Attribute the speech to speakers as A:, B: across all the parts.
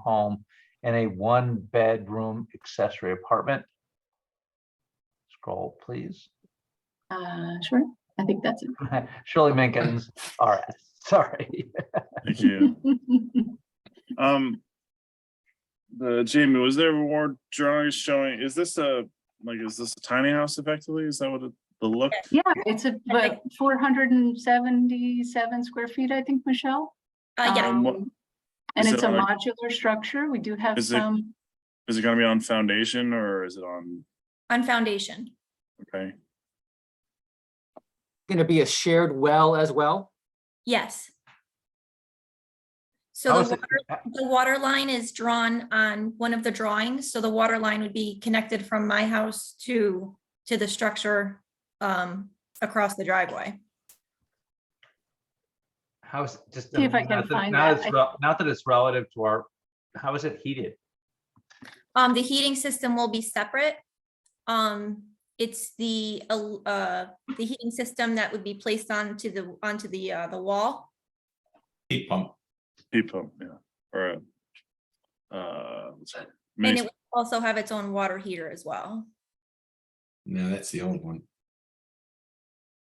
A: home in a one-bedroom accessory apartment. Scroll, please.
B: Uh, sure, I think that's it.
A: Shirley Minkins, all right, sorry.
C: Thank you. Um, the Jamie, was there reward drawings showing, is this a, like, is this a tiny house effectively? Is that what it- the look?
B: Yeah, it's a, but four hundred and seventy-seven square feet, I think, Michelle.
D: Uh, yeah,
C: Um, what-
B: Um, And
C: is
B: it's
C: it
B: a
C: like-
B: modular structure. We do have
C: Is it-
B: some,
C: Is it gonna be on foundation or is it on,
D: on foundation.
C: okay,
E: Going to be a shared well as well?
D: Yes.
A: How
D: So
A: is
D: the
A: it-
D: water, the water line is drawn on one of the drawings, so the water line would be connected from my house to, to the structure um, across the driveway.
A: How is, just.
B: See if I can
A: not that-
B: find
A: not
B: that.
A: it's rel- Not that it's relative to our, how is it heated?
D: Um, the heating system will be separate. Um, it's the, el- uh, the heating system that would be placed onto the, onto the, uh, the wall.
F: heat pump.
C: heat pump, yeah, or a uh, what's it-
D: And it
C: mini-
D: would also have its own water heater as well.
F: No, that's the old one.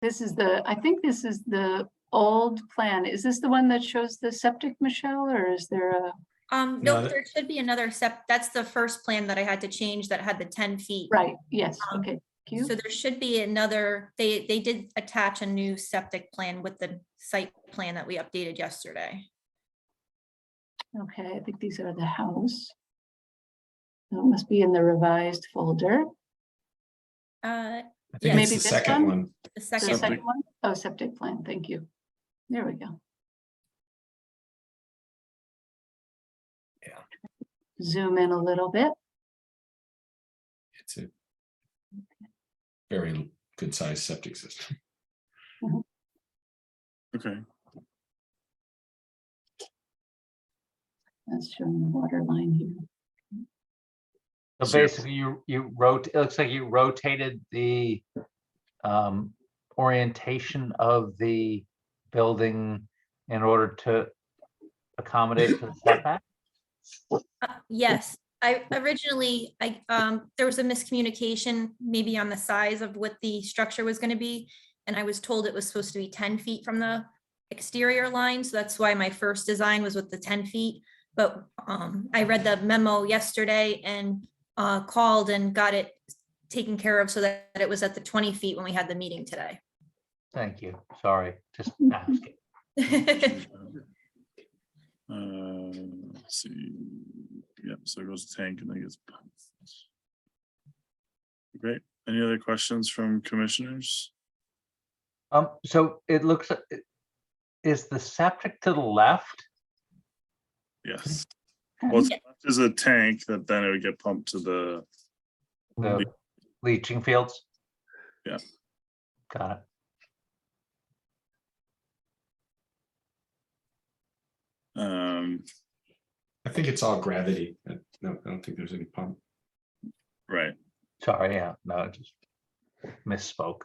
B: this is the, I think this is the old plan. Is this the one that shows the septic, Michelle, or is there a?
D: Um,
F: No,
D: no,
F: that-
D: there should be another step. That's the first plan that I had to change that had the ten feet.
B: Right, yes,
D: Um,
B: okay. thank you.
D: So there should be another, they, they did attach a new septic plan with the site plan that we updated yesterday.
B: Okay, I think these are the house. So It must be in the revised folder.
D: Uh,
F: I
D: Yeah.
F: think it's
B: Maybe
F: the
B: this one?
F: second one.
D: the
B: The
D: second,
C: Septic.
B: second one? Oh, septic plan, thank you. There we go.
F: Yeah.
B: Zoom in a little bit.
F: It's a very good sized septic system.
C: okay,
B: That's showing the water line here.
A: So
C: So-
A: basically, you, you wrote, it looks like you rotated the um, orientation of the building in order to accommodate for the setback?
D: uh, yes, I originally, I, um, there was a miscommunication maybe on the size of what the structure was gonna be. And I was told it was supposed to be ten feet from the exterior line, so that's why my first design was with the ten feet. But, um, I read the memo yesterday and, uh, called and got it taken care of so that it was at the twenty feet when we had the meeting today.
A: Thank you, sorry, just asking.
C: uh, let's see, yep, so it goes to tank and then gets pumped. Great, any other questions from commissioners?
A: Um, so it looks, like it- is the septic to the left?
C: Yes. Well, it's- there's a tank that then it would get pumped to the,
A: The leaching fields?
C: Yeah.
A: Got it.
C: um,
F: I think it's all gravity. I- No, I don't think there's any pump.
C: right,
A: Sorry, yeah, no, I just misspoke.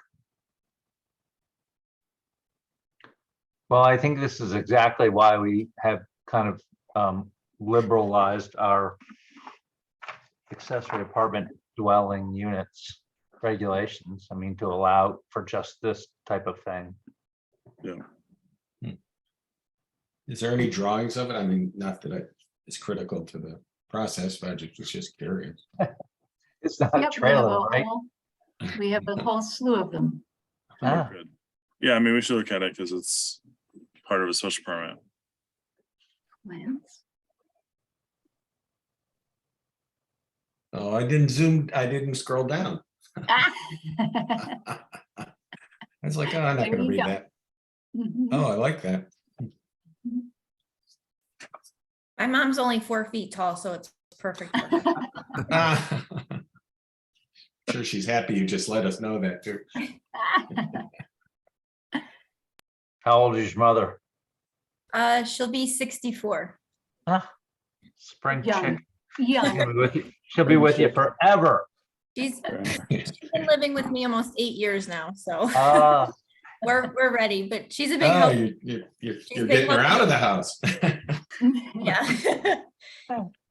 A: Well, I think this is exactly why we have kind of um, liberalized our accessory apartment dwelling units regulations. I mean, to allow for just this type of thing.
F: Is there any drawings of it? I mean, not that I, it's critical to the process, but I ju- was just curious.
A: It's not a
B: Yep, we have
A: trailer,
B: a
A: right?
B: whole- We have a whole slew of them.
A: Ah.
C: Good. Yeah, I mean, we should look at it because it's part of a special permit.
B: Plans.
F: Oh, I didn't zoom, I didn't scroll down.
B: Ah.
F: I was like, oh, I'm not
B: There
F: gonna
B: you
F: read
B: go.
F: that. Oh, I like that.
D: My mom's only four feet tall, so it's perfect. for her.
F: Ah. Sure, she's happy you just let us know that too.
A: How old is your mother?
D: Uh, she'll be sixty-four.
A: Spring
B: Young.
A: chick.
B: Yeah,
A: She'll be with you- She'll be with you forever.
D: She's she's been living with me almost eight years now, so
A: Ah,
D: we're, we're ready, but she's a big
F: Oh,
D: help.
F: you, you, you're, you're
D: big
F: getting her
D: help.
F: out of the house.
D: Yeah.
A: Oh.